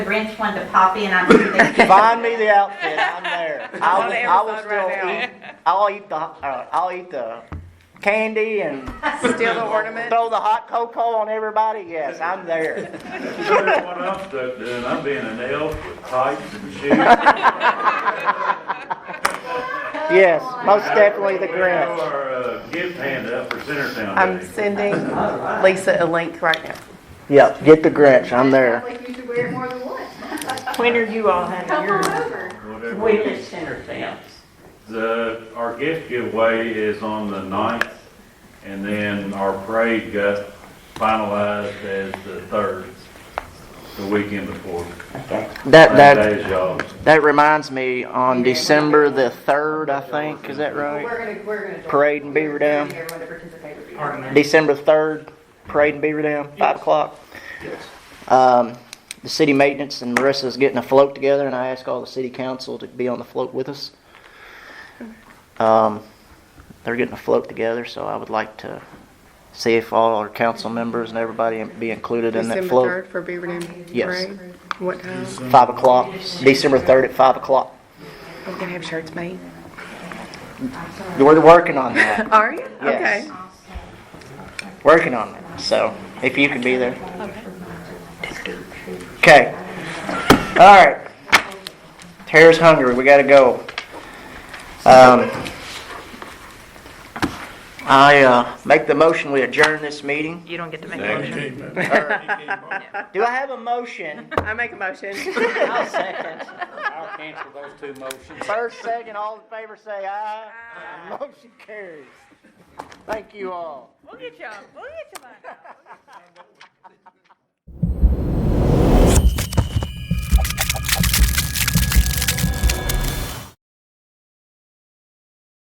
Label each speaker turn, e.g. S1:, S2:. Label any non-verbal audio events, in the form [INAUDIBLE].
S1: Grinch one to pop in, I'm sure they [LAUGHS] could.
S2: Find me the outfit, I'm there. I
S3: on
S2: will, I will
S3: Amazon
S2: still
S3: right
S2: eat, I'll eat the, uh, I'll eat the candy and
S3: Steal the ornament.
S2: throw the hot cocoa on everybody, yes, I'm there.
S4: What I'm stuck doing, I'm being an elf with tights
S2: [LAUGHS]
S4: and shoes.
S2: Yes, most definitely the Grinch.
S4: Throw our uh, gift hand up for Centertown
S3: I'm
S4: Day.
S3: sending Lisa a link right now.
S2: Yep, get the Grinch, I'm there.
S5: Like you should wear it more than once.
S6: When are you all having
S5: Come
S6: your?
S5: on over.
S4: Whatever.
S6: We live center towns.
S4: The, our gift giveaway is on the ninth, and then our parade got finalized as the third, the weekend before.
S2: That, that,
S4: Same day as y'all.
S2: that reminds me, on December the third, I think, is that right?
S5: We're gonna, we're gonna.
S2: Parade in Beaver Dam.
S5: Everyone to participate would be.
S2: December third, parade in Beaver Dam, five o'clock. Um, the city maintenance and Marissa's getting a float together, and I asked all the city council to be on the float with us. Um, they're getting a float together, so I would like to see if all our council members and everybody be included in that
S3: December
S2: float.
S3: third for Beaver Dam
S2: Yes.
S3: Parade. What time?
S2: Five o'clock, December third at five o'clock.
S3: Are we gonna have shirts made?
S2: We're working on [LAUGHS] that,
S3: Are you?
S2: Yes.
S3: Okay.
S2: working on that, so if you could be there. Okay, all right. Tara's hungry, we gotta go. Um, I uh, make the motion, we adjourn this meeting.
S6: You don't get to make a motion.
S4: Second.
S2: Do I have a motion?
S3: I make a motion.
S2: [LAUGHS] I'll second. I'll cancel those two motions. First, second, all in favor say aye. Motion carries. Thank you all.
S6: We'll get you, we'll get you one.